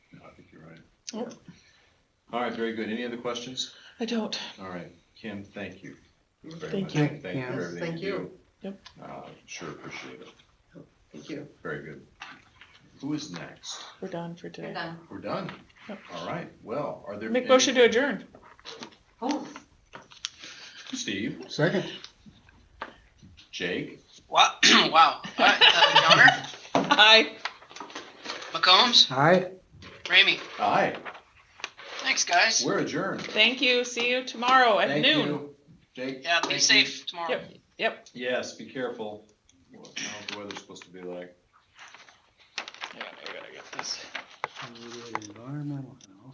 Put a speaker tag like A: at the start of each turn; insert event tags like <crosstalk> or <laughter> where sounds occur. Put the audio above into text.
A: Yep.
B: All right, very good. Any other questions?
A: I don't.
B: All right, Kim, thank you. very
A: Thank
B: much.
A: you.
B: Thank you
C: Yes,
B: for everything
C: thank
B: you do.
C: you.
A: Yep.
B: Uh, Sure appreciate it.
C: Thank you.
B: Very good. Who is next?
A: We're done for today.
D: You're done.
B: We're done.
A: Yep.
B: All right, well, are there?
A: Make
B: any-
A: motion to adjourn.
D: Oh,
B: Steve,
C: Second.
B: Jake,
E: Wow, <clears throat> wow. All right, uh, Downer,
A: Aye.
E: McCombs,
C: Aye.
E: Ramey.
B: aye,
E: Thanks, guys.
B: we're adjourned.
A: Thank you. See you tomorrow at
B: Thank
A: noon.
B: you. Jake?
E: Yeah, be
B: thank you.
E: safe tomorrow.
A: Yep. Yep.
B: Yes, be careful. I don't know what the weather's supposed to be like.
A: I gotta- I gotta get this.
C: Environmental.